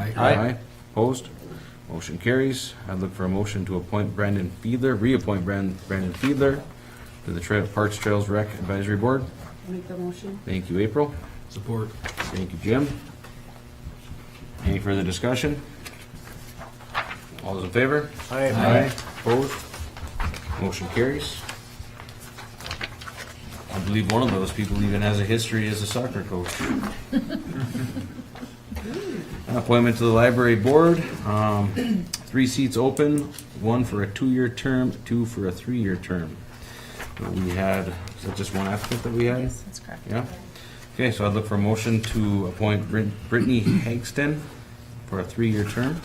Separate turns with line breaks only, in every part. Aye.
Opposed? Motion carries. I'd look for a motion to appoint Brandon Fiedler, reappoint Bran- Brandon Fiedler to the Tra- Parks Trails Rec Advisory Board.
Make the motion.
Thank you, April.
Support.
Thank you, Jim. Any further discussion? All those in favor?
Aye.
Opposed? Motion carries. I believe one of those people even has a history as a soccer coach. Appointment to the library board, um, three seats open, one for a two-year term, two for a three-year term. We had, is that just one applicant that we had?
Yes, that's correct.
Yeah. Okay, so I'd look for a motion to appoint Brit- Brittany Hagston for a three-year term.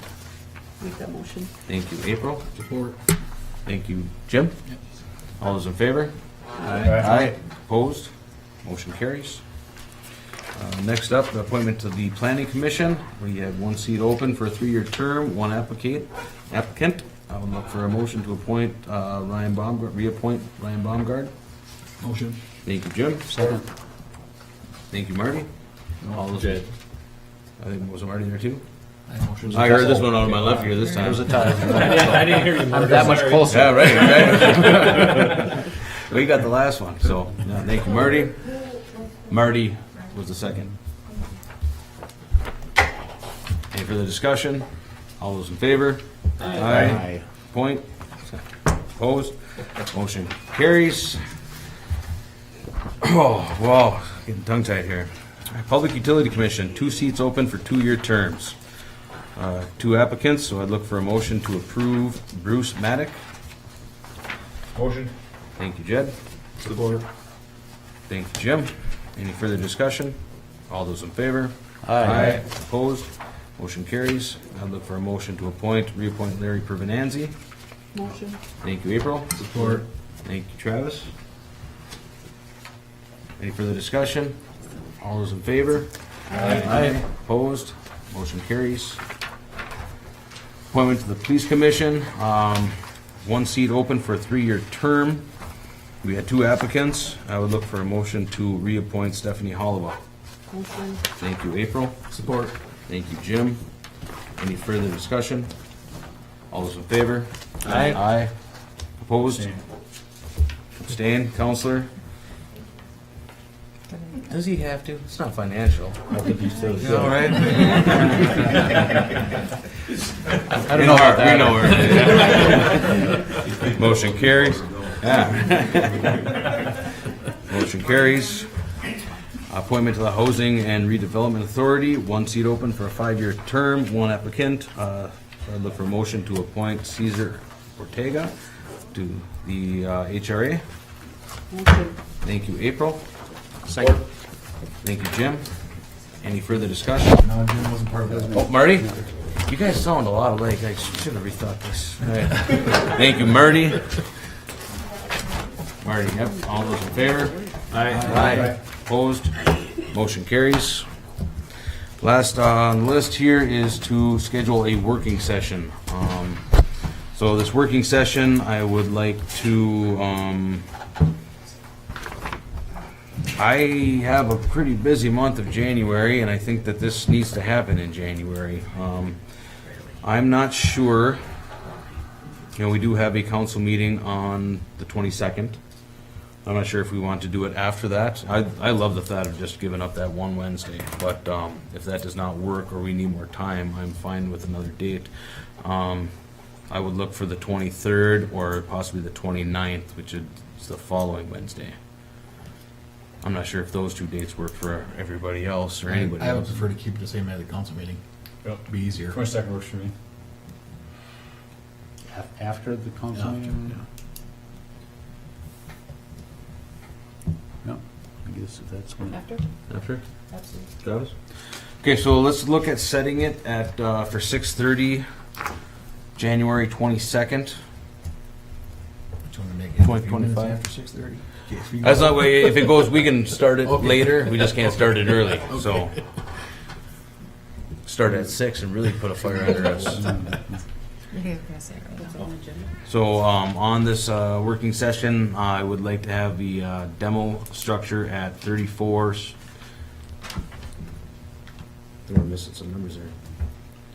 Make that motion.
Thank you, April.
Support.
Thank you, Jim. All those in favor?
Aye.
Opposed? Motion carries. Uh, Next up, the appointment to the planning commission. We have one seat open for a three-year term, one applicant. Applicant, I would look for a motion to appoint uh, Ryan Baumgart, reappoint Ryan Baumgart.
Motion.
Thank you, Jim. Second. Thank you, Marty. All those. I think, was Marty there too? I heard this one on my left ear this time.
I didn't hear you.
I'm that much closer.
Yeah, right, right. We got the last one, so, yeah, thank you, Marty. Marty was the second. Any further discussion? All those in favor? Aye. Point? Opposed? Motion carries. Oh, wow, getting tongue-tied here. Public Utility Commission, two seats open for two-year terms. Uh, Two applicants, so I'd look for a motion to approve Bruce Maddock.
Motion.
Thank you, Jed.
Support.
Thank you, Jim. Any further discussion? All those in favor? Opposed? Motion carries. I'd look for a motion to appoint, reappoint Larry Pervenanzi.
Motion.
Thank you, April.
Support.
Thank you, Travis. Any further discussion? All those in favor? Aye. Opposed? Motion carries. Appointment to the Police Commission, um, one seat open for a three-year term. We had two applicants. I would look for a motion to reappoint Stephanie Hollowell.
Motion.
Thank you, April.
Support.
Thank you, Jim. Any further discussion? All those in favor?
Aye.
Aye. Opposed? Abstain, counselor? Does he have to? It's not financial. All right.
I don't know about that.
We know her. Motion carries. Yeah. Motion carries. Appointment to the Housing and Redevelopment Authority, one seat open for a five-year term, one applicant. Uh, I'd look for a motion to appoint Caesar Ortega to the uh, HRA.
Motion.
Thank you, April.
Second.
Thank you, Jim. Any further discussion?
No, Jim wasn't part of it.
Oh, Marty? You guys sound a lot alike. I should have rethought this. Thank you, Marty. Marty, yep. All those in favor? Aye. Opposed? Motion carries. Last on the list here is to schedule a working session. Um, So this working session, I would like to, um, I have a pretty busy month of January, and I think that this needs to happen in January. Um, I'm not sure, you know, we do have a council meeting on the 22nd. I'm not sure if we want to do it after that. I, I love the thought of just giving up that one Wednesday, but um, if that does not work or we need more time, I'm fine with another date. Um, I would look for the 23rd or possibly the 29th, which is the following Wednesday. I'm not sure if those two dates work for everybody else or
I
anybody
would
else.
prefer to keep it the same as the council meeting. Be easier.
Twenty-second works for me.
Af- After the council
After,
meeting?
yeah.
No, I guess if that's when.
After?
After?
Absolutely.
Travis? Okay, so let's look at setting it at, uh, for six thirty, January twenty-second.
Do you want to make it a few minutes
25?
After six thirty.
That's not, way- if it goes, we can start it
Okay.
later, we just can't start it early, so. Start at six and really put a fire under us.
I think I was gonna say right now.
That's on the agenda.
So, um, on this, uh, working session, I would like to have the, uh, demo structure at thirty-four. I think we're missing some numbers there.